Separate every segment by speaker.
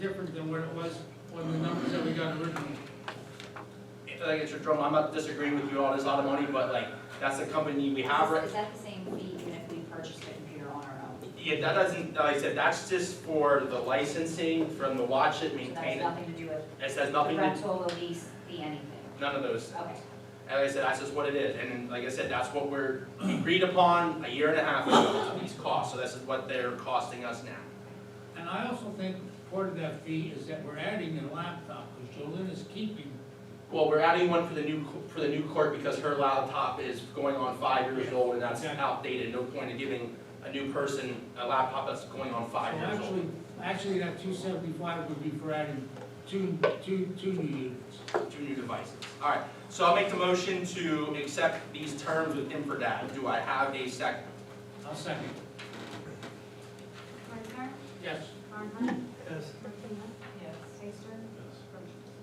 Speaker 1: different than what it was when the numbers that we got originally.
Speaker 2: Like, it's your drum, I'm not disagreeing with you, all this lot of money, but like, that's the company we have right.
Speaker 3: Is that the same fee even if we purchased a computer on our own?
Speaker 2: Yeah, that doesn't, like I said, that's just for the licensing, from the watch it,
Speaker 3: So that has
Speaker 2: maintain it.
Speaker 3: nothing to do with
Speaker 2: It says
Speaker 3: the
Speaker 2: nothing, to-
Speaker 3: rental, the lease, the anything?
Speaker 2: none of those.
Speaker 3: Okay.
Speaker 2: And like I said, that's just what it is. And then, like I said, that's what we're agreed upon a year and a half ago, these costs. So this is what they're costing us now.
Speaker 1: And I also think part of that fee is that we're adding a laptop, which Jolene is keeping.
Speaker 2: Well, we're adding one for the new, co- for the new court because her laptop is going on five years old and that's
Speaker 1: Yeah.
Speaker 2: outdated. No point in giving a new person a laptop that's going on
Speaker 1: So
Speaker 2: five years old.
Speaker 1: actually, actually, that two seventy-five would be for adding two, two, two new units.
Speaker 2: two new devices. All right, so I'll make the motion to accept these terms with Infradat. Do I have a second?
Speaker 1: I'll second.
Speaker 4: Reichner,
Speaker 1: Yes.
Speaker 4: Barnhart,
Speaker 1: Yes.
Speaker 4: Martina, Taster,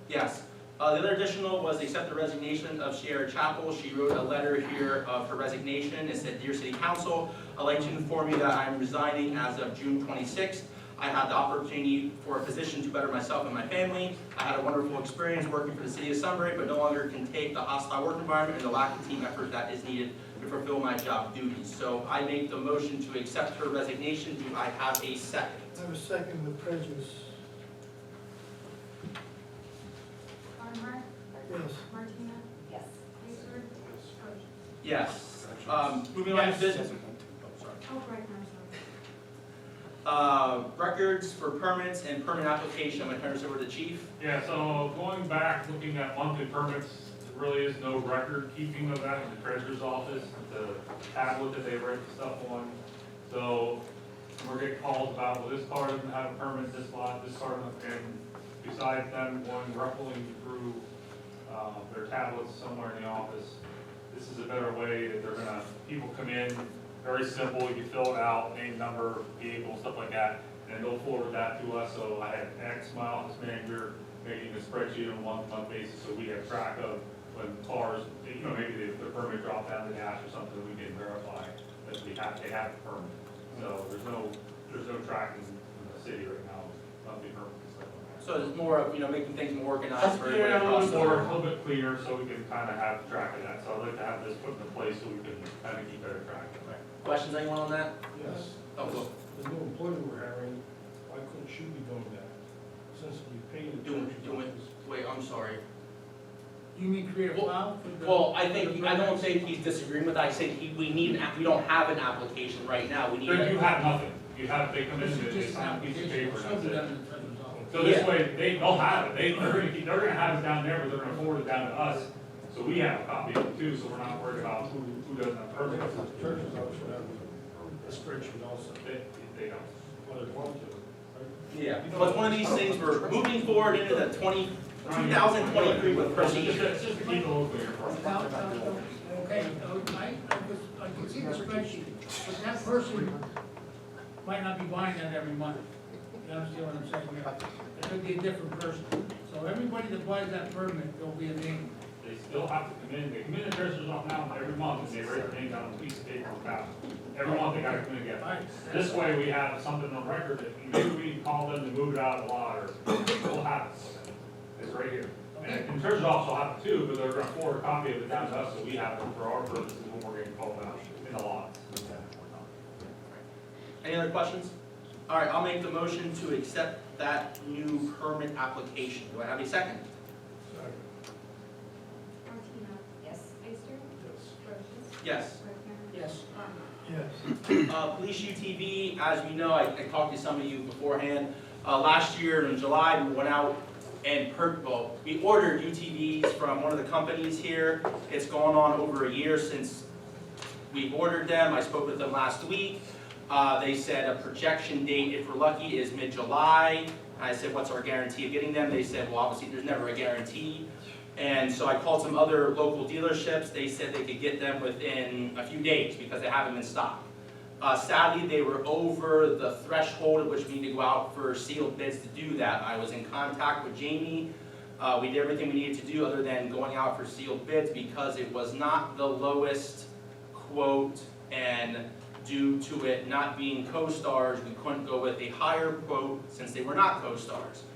Speaker 2: Yes. Uh, the other additional was to accept the resignation of Sierra Chapel. She wrote a letter here of her resignation. It said, Dear City Council, I'd like to inform you that I'm resigning as of June twenty-sixth. I had the opportunity for a position to better myself and my family. I had a wonderful experience working for the city of Sunbury, but no longer can take the hostile work environment and the lack of team effort that is needed to fulfill my job duties. So I make the motion to accept her resignation. Do I have a second?
Speaker 5: I have a second with prejudice.
Speaker 4: Barnhart,
Speaker 5: Yes,
Speaker 4: Martina,
Speaker 3: Yes.
Speaker 4: Taster, Roach.
Speaker 2: Yes. Um, moving on to
Speaker 1: Yes.
Speaker 2: business. Oh, sorry.
Speaker 4: Oh, Reichner, sorry.
Speaker 2: Uh, records for permits and permit application, I'm gonna turn this over to the chief.
Speaker 6: Yeah, so going back, looking at monthly permits, there really is no record keeping of that in the treasurer's office, the tablet that they write the stuff on. So we're getting calls about, well, this car doesn't have a permit, this lot, this car, doesn't. and besides them, one ruffling through, uh, their tablets somewhere in the office. This is a better way that they're gonna, people come in, very simple, you fill it out, name, number, vehicle, stuff like that, and they'll forward that to us, so I had X, my office manager, making a spreadsheet on a month-to-month basis, so we have track of when cars, you know, maybe the, the permit dropped out of the dash or something, we can verify that we have, they have the permit. So there's no, there's no tracking in the city right now, monthly permits, stuff like that.
Speaker 2: So it's more of, you know, making things more organized for everybody
Speaker 6: Yeah, a
Speaker 2: across
Speaker 6: little
Speaker 2: the
Speaker 6: more, a
Speaker 2: board.
Speaker 6: little bit clearer, so we can kind of have track of that, so I'd like to have this put into place so we can kind of keep better track of that.
Speaker 2: Questions, anyone on that?
Speaker 7: Yes,
Speaker 2: Oh, look,
Speaker 7: the new employee we're hiring, why couldn't she be doing that? Since we paid the
Speaker 2: Doing-
Speaker 7: treasurer's
Speaker 2: doing-
Speaker 7: office.
Speaker 2: wait, I'm sorry.
Speaker 1: You mean create a
Speaker 2: Well-
Speaker 1: file for the?
Speaker 2: Well, I think, I don't think he's disagreeing with, that. I said he, we need, an app- we don't have an application right now, we need.
Speaker 6: But you
Speaker 2: a-
Speaker 6: have nothing, you have, they come in,
Speaker 1: This is
Speaker 6: they
Speaker 1: just an
Speaker 6: sign a piece of
Speaker 1: application,
Speaker 6: paper,
Speaker 1: it
Speaker 6: and
Speaker 1: should
Speaker 6: that's
Speaker 1: be
Speaker 6: it.
Speaker 1: done in the treasurer's office.
Speaker 6: So this way, they, they'll have it, they, they're gonna, keep- they're gonna have it down there, but they're gonna forward it down to us, so we have a copy of it too, so we're not worried about who, who doesn't have
Speaker 7: Or
Speaker 6: permits.
Speaker 7: perhaps the treasurer's office should have a spreadsheet also,
Speaker 6: They, they don't.
Speaker 7: what it wants to.
Speaker 2: Yeah, but it's one of these things, we're moving forward into the twenty, two thousand twenty-three with
Speaker 6: It's
Speaker 2: procedure.
Speaker 6: just- it's just to keep it local here for us.
Speaker 1: Now, uh, Okay, uh, I, I could, I could see the spreadsheet, but that person might not be buying that every month. You understand what I'm saying here? It could be a different person. So everybody that buys that permit, there'll be a name.
Speaker 6: They still have to come in, they come in the treasurer's office now every month, and they write their name down on a piece of paper and pass it. Every month they gotta come in and get it.
Speaker 1: Alright,
Speaker 6: This way we have something on record that maybe we can call them to move it out of the lot or we'll have it. It's right here. And the treasurer's office will have it too, but they're gonna forward a copy of it down to us so we have it for our purposes when we're getting called out in the lot.
Speaker 2: Any other questions? All right, I'll make the motion to accept that new permit application. Do I have a second?
Speaker 4: Martina,
Speaker 3: Yes.
Speaker 4: Taster, Roach.
Speaker 2: Yes.
Speaker 4: Reichner,
Speaker 1: Yes.
Speaker 4: Barnhart.
Speaker 5: yes.
Speaker 2: Uh, Police UTV, as we know, I, I talked to some of you beforehand, uh, last year in July, we went out and per, well, we ordered UTVs from one of the companies here. It's gone on over a year since we ordered them, I spoke with them last week. Uh, they said a projection date, if we're lucky, is mid-July. I said, what's our guarantee of getting them? They said, well, obviously, there's never a guarantee. And so I called some other local dealerships, they said they could get them within a few days because they have them in stock. Uh, sadly, they were over the threshold at which we need to go out for sealed bids to do that. I was in contact with Jamie. Uh, we did everything we needed to do other than going out for sealed bids because it was not the lowest quote and due to it not being co-stars, we couldn't go with a higher quote since they were not co-stars.